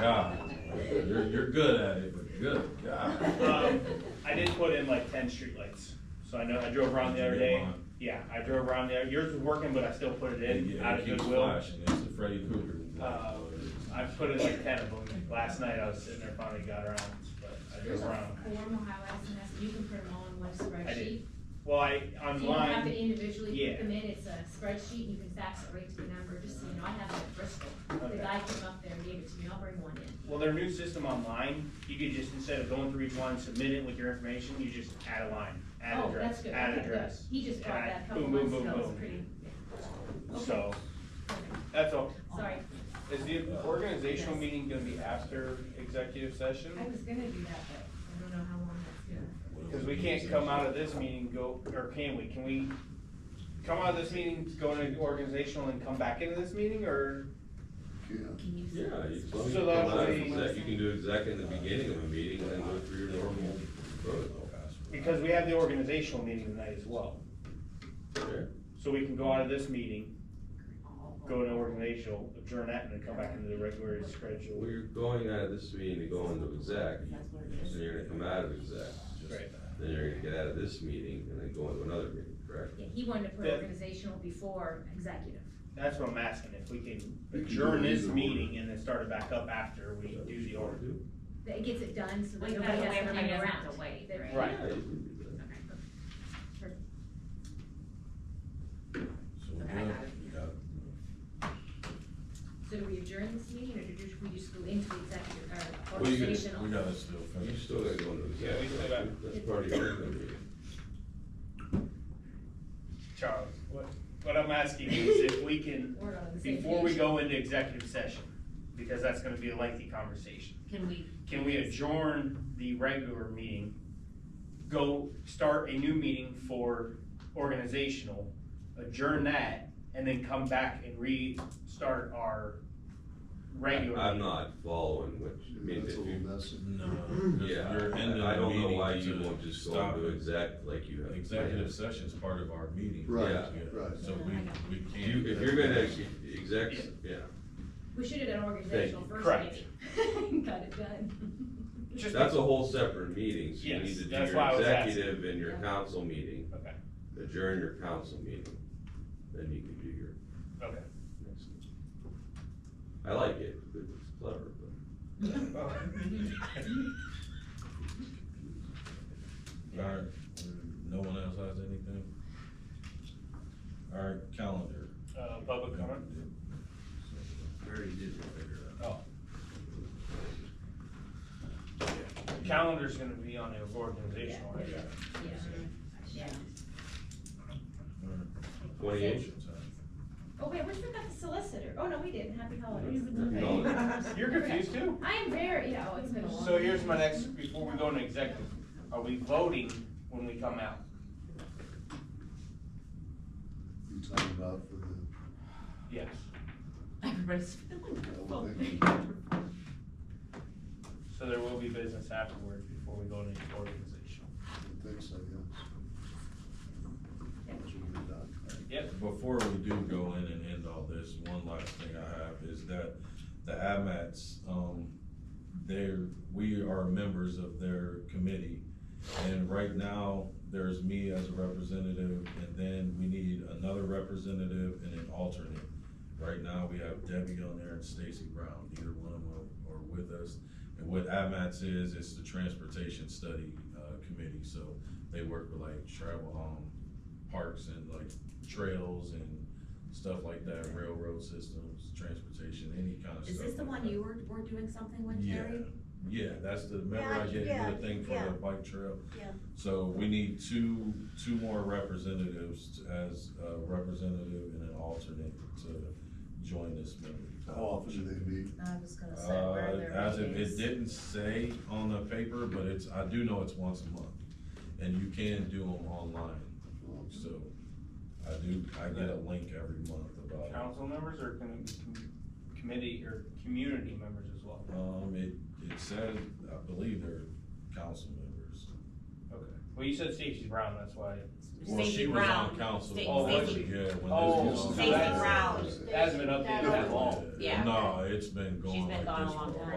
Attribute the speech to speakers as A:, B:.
A: God, you're, you're good at it, but good God.
B: Um, I did put in like ten streetlights, so I know, I drove around the other day.
A: Mine.
B: Yeah, I drove around there, yours was working, but I still put it
A: It
B: in out
A: it
B: of
A: keeps
B: goodwill.
A: flashing, it's the Freddy Krueger.
B: Uh, I put in like ten of them, last night I was sitting there, finally got around, but I
C: There's
B: drove
C: a
B: around.
C: form will highlight some mess, you can put them all in one
B: I did.
C: spreadsheet.
B: Well, I,
C: So you don't have to
B: online,
C: individually
B: Yeah.
C: put them in, it's a spreadsheet, you can fax it right to the number, just so you know, I have it at Bristol.
B: Okay.
C: The guy came up there and gave it to me, I'll bring one in.
B: well, their new system online, you could just, instead of going through each one, submit it with your information, you just add a line, add
C: Oh, that's
B: address,
C: good.
B: add
C: Okay, good.
B: address.
C: He just brought
B: add-
C: that a couple
B: boom, boom,
C: months
B: boom,
C: ago, it was
B: boom.
C: pretty, okay.
B: So, that's all.
C: sorry,
B: Is the organizational meeting gonna be after executive session?
C: I was gonna do that, but I don't know how long that's gonna.
B: Cause we can't come out of this meeting, and go, or can we, can we come out of this meeting, go into organizational and come back into this meeting, or?
C: Can you?
D: Yeah, you
B: So
D: you can
B: that
D: allow
B: would
D: it
B: be-
D: from that. You can do exec in the beginning of a meeting and then go through your normal protocol.
B: Because we have the organizational meeting tonight as well,
D: Sure.
B: so we can go out of this meeting, go to organizational, adjourn that, and then come back into the regular schedule.
D: We're going out of this meeting to go into exec,
C: That's what it
D: then
C: is.
D: you're gonna come out of exec.
B: Right.
D: Then you're gonna get out of this meeting and then go into another meeting, correct?
C: Yeah, he wanted to put
B: Yeah.
C: organizational before executive.
B: That's what I'm asking, if we can adjourn this meeting and then start it back up after we do the org.
C: That it gets it done, so that
E: Like,
C: nobody
E: that
C: has
E: way
C: to
E: everybody
C: hang
E: doesn't
C: around.
E: have to wait,
C: That-
E: right?
B: Right.
D: Yeah, you can do that.
A: So we're
E: Okay, I
A: good.
E: got it.
A: We got it.
C: So do we adjourn this meeting, or do we just go into executive, or
D: Well, you can-
C: organizational?
A: We gotta still
D: You
A: finish.
D: still gotta go into exec.
B: Yeah, we still got-
D: That's part of your regular meeting.
B: Charles, what, what I'm asking you is if we can,
C: We're on the same
B: before we
C: page.
B: go into executive session, because that's gonna be a lengthy conversation.
E: Can we,
B: Can we adjourn the regular meeting, go start a new meeting for organizational, adjourn that, and then come back and restart our regular?
D: I'm
B: meeting?
D: not following what, you- I mean,
F: That's
D: if
F: a little
D: you,
F: messy.
A: No.
D: Mm-hmm. yeah,
A: You're ending
D: I I
A: the
D: don't know
A: meeting
D: why
A: to
D: you won't just go
A: stop
D: into
A: it.
D: exec like you have.
A: Executive session's part of our meeting.
F: Right,
D: Yeah.
F: right.
A: So we, we
D: If
A: can't.
D: you, if you're gonna exec, yeah.
C: We should have done organizational
B: Thank you.
C: first, maybe. Got it done.
B: Just-
D: That's a whole separate meeting, so you
B: Yes,
D: need to do
B: that's why I
D: your
B: was asking.
D: executive and your council meeting,
B: Okay,
D: adjourn your council meeting, then you can do your
B: okay.
D: next meeting. I like it, it's clever, but.
A: Alright, no one else has anything? Alright, calendar.
B: Uh, public comment?
A: Very digital, figure it
B: Oh. Calendar's gonna be on the organizational, right?
C: Yeah, yeah.
A: out.
D: Twenty-eight,
C: Oh, wait, we forgot the solicitor. Oh, no, we didn't. Happy holidays.
D: Happy holidays.
B: You're confused too?
C: I am very, yeah, oh, it's been a long.
B: So here's my next, before we go into executive, are we voting when we come out?
F: You talking about for the,
B: Yes.
E: everybody's feeling.
F: I would think-
B: So there will be business afterwards before we go into organizational.
F: I think so, yes. That's what we've done.
B: Yep.
A: Before we do go in and end all this, one last thing I have is that the AMATs, um, they're, we are members of their committee. And right now, there's me as a representative, and then we need another representative and an alternate. Right now, we have Debbie on there and Stacy Brown, neither one of them are are with us. And what AMATs is, it's the Transportation Study, uh, Committee, so they work with like travel, um, parks and like trails and stuff like that, railroad systems, transportation, any kind of stuff.
E: Is this the
A: like
E: one
A: that.
E: you were, were doing something with,
A: Yeah,
E: Terry?
A: yeah, that's the, remember
G: Yeah,
A: I gave you
G: yeah,
A: the thing for
G: yeah.
A: the bike trail?
G: Yeah.
A: So we need two, two more representatives to- as a representative and an alternate to join this meeting.
F: How often do uh, they meet?
G: I was gonna say, where
A: Uh,
G: are their
A: as it, it
G: meetings?
A: didn't say on the paper, but it's, I do know it's once a month. And you can do them online, so I do, I get a link every month about it.
B: Council members or can, can- committee or community members as well?
A: Um, it, it said, I believe they're council members.
B: Okay. Well, you said Stacy Brown, that's why.
A: Well, she
E: Stacy
A: was on
E: Brown.
A: council.
E: Sta-
A: Oh, was
B: Stacy-
A: she? Yeah. when
B: Oh,
A: this was on
F: Stacy
A: council.
E: Brown.
B: It hasn't been updated that long.
E: Yeah.
A: No, it's been
E: She's
A: going
E: been
A: like
E: gone a
A: this for a
E: long time.
A: while.